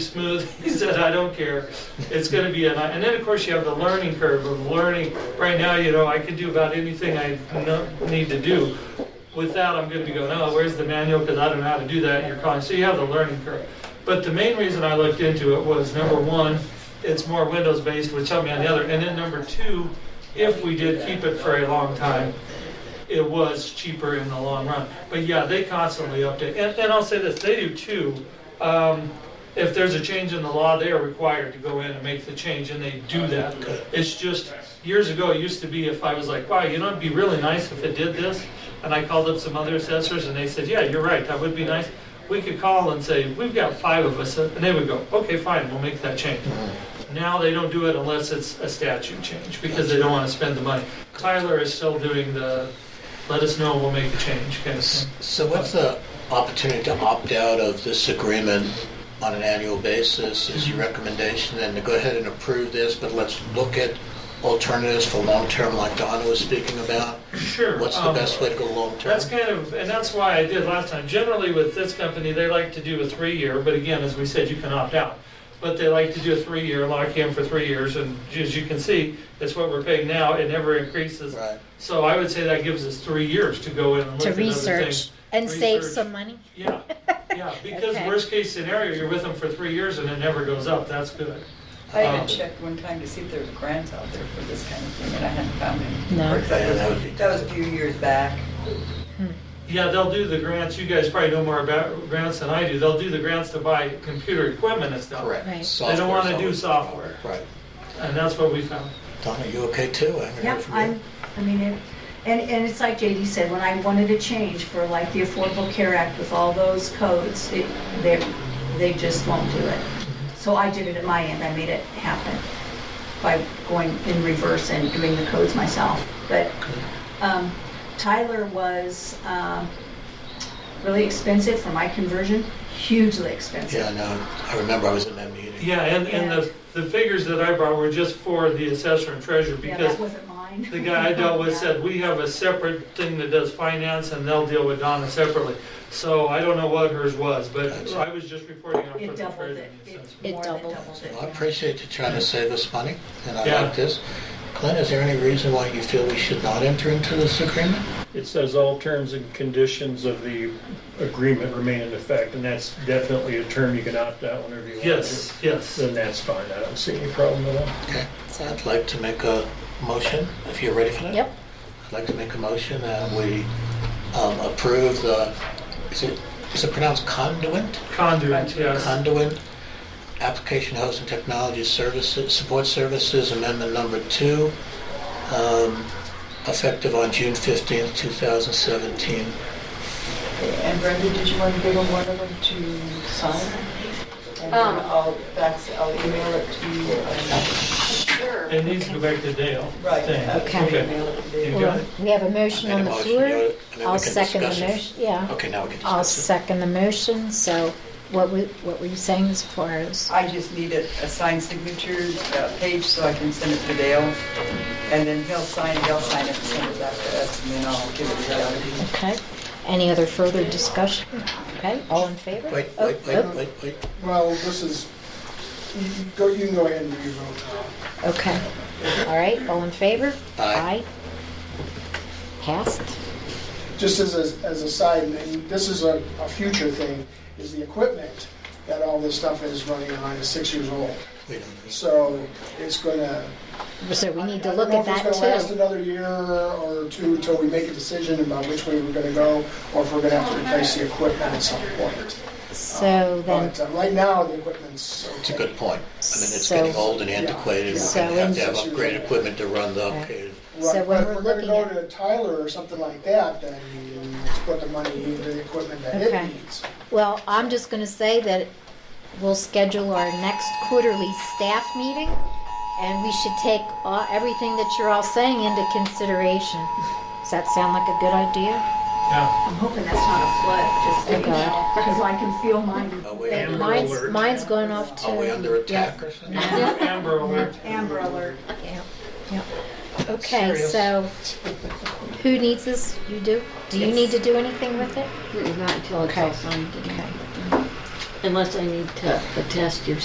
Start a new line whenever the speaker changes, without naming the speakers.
smooth. He said, I don't care. It's going to be, a ni-" and then, of course, you have the learning curve of learning. Right now, you know, I can do about anything I no- need to do. With that, I'm going to go, no, where's the manual? Because I don't know how to do that. You're calling. So you have the learning curve. But the main reason I looked into it was number one, it's more Windows-based, which helped me on the other. And then number two, if we did keep it for a long time, it was cheaper in the long run. But yeah, they constantly update. And, and I'll say this, they do too. Um, if there's a change in the law, they are required to go in and make the change, and they do that. It's just, years ago, it used to be if I was like, wow, you know, it'd be really nice if it did this. And I called up some other assessors and they said, yeah, you're right, that would be nice. We could call and say, we've got five of us, and they would go, okay, fine, we'll make that change. Now they don't do it unless it's a statute change, because they don't want to spend the money. Tyler is still doing the, let us know, we'll make the change, kind of thing.
So what's the opportunity to opt out of this agreement on an annual basis? Is
Mm-hmm.
your recommendation then to go ahead and approve this, but let's look at alternatives for long-term like Donna was speaking about?
Sure.
What's the
um,
best way to go long-term?
That's kind of, and that's why I did last time. Generally with this company, they like to do a three-year, but again, as we said, you can opt out. But they like to do a three-year, lock in for three years, and as you can see, it's what we're paying now, it never increases.
Right.
So I would say that gives us three years to go in and look
to
at other things.
research and save
Research.
some money.
Yeah, yeah, because
Okay.
worst case scenario, you're with them for three years and it never goes up, that's good.
I
Um,
even checked one time to see if there was grants out there for this kind of thing, and I hadn't found any.
No.
Of course, That
Yeah, that would be-
was- that was a few years back.
Hmm.
Yeah, they'll do the grants, you guys probably know more about grants than I do, they'll do the grants to buy computer equipment and stuff.
Correct.
Right. They don't
Software's
wanna do
always-
software.
Right.
And that's what we found.
Donna, you okay too? I haven't heard
Yep,
from you.
I'm, I mean, it, and, and it's like JD said, when I wanted a change for like the Affordable Care Act with all those codes, it, they, they just won't do it. So I did it at my end, I made it happen by going in reverse and doing the codes myself. But, um, Tyler was, um, really expensive for my conversion, hugely
Yeah, I
expensive.
know. I remember I was in that meeting.
Yeah, and, and the, the figures that I brought were just for the assessor and treasurer,
Yeah,
because
that wasn't mine.
the guy I dealt with
Yeah.
said, we have a separate thing that does finance, and they'll deal with Donna separately. So I don't know what hers was, but
Gotcha.
I was just reporting out for the
It doubled
treasurer.
it.
and the
It
assessor.
It
more than
doubled.
doubled it.
Well, I
yeah.
appreciate you trying to save us money, and I
Yeah.
like this. Clint, is there any reason why you feel we should not enter into this agreement?
It says all terms and conditions of the agreement remain in effect, and that's definitely a term you can opt out whenever you want to.
Yes, yes.
Then that's fine, I don't see any problem at all.
Okay, I'd like to make a motion, if you're ready for that.
Yep.
I'd like to make a motion that we um, approve the, is it, is it pronounced conduit?
Conduit, yes.
Conduit, application host and technology services, support services, amendment number two, um, effective on June 15th, 2017.
And Brenda, did you want to give them one of them to sign? And then
Um.
I'll fax, I'll email it to you. um,
Sure.
It needs to go back to Dale.
Right.
Thing.
I'll
Okay.
email it to
You
you.
got it?
We have a motion
I made
on
a
the
motion,
floor.
yeah, and then we
I'll
can
second the
discuss it.
motion, yeah.
Okay, now we can
I'll
discuss it.
second the motion, so what we, what were you saying as far as,
I just need a a signed signature uh, page so I can send it to Dale, and then he'll sign, they'll sign it and send it back to us, and then I'll give it to Dale.
okay? Any other further discussion? Okay, all in favor?
Wait,
Oh,
wait, wait,
oh,
wait, wait.
Well, this is, you you go, you can go ahead and do your vote now.
Okay, all right, all in favor?
Aye.
Passed?
Just as, a- as a side, and this is a, a future thing, is the equipment that all this stuff is running on is six years old.
Wait a minute.
So it's gonna.
So we need to
I don't
look
know
at
if it's
that
gonna last
too.
another year or two till we make a decision about which way we're gonna go, or if we're gonna have to replace the equipment at some point.
So
Oh,
then,
But uh, right now, the equipment's.
It's a good point. I mean, it's
So-
getting old and antiquated. We're
So
going to have to
in-
have upgraded equipment to run the updated.
Right,
So when
but if
we're
we're gonna
looking
go
at-
to Tyler or something like that, then let's put the money into the equipment that
Okay.
it needs.
well, I'm just gonna say that we'll schedule our next quarterly staff meeting, and we should take all- everything that you're all saying into consideration. Does that sound like a good idea?
Yeah.
I'm hoping that's not a flood, just so you
Oh, God.
know, because I can feel mine.
Are we
Yeah,
under
Mine's,
alert?
mine's going off to.
Are we under attack or something?
Amber- Amber alert.
Amber alert.
Yeah, yeah. Okay, so who needs this? You do? Do you need to do anything with it?
Not until it's all signed.
Okay.
unless I need to attest your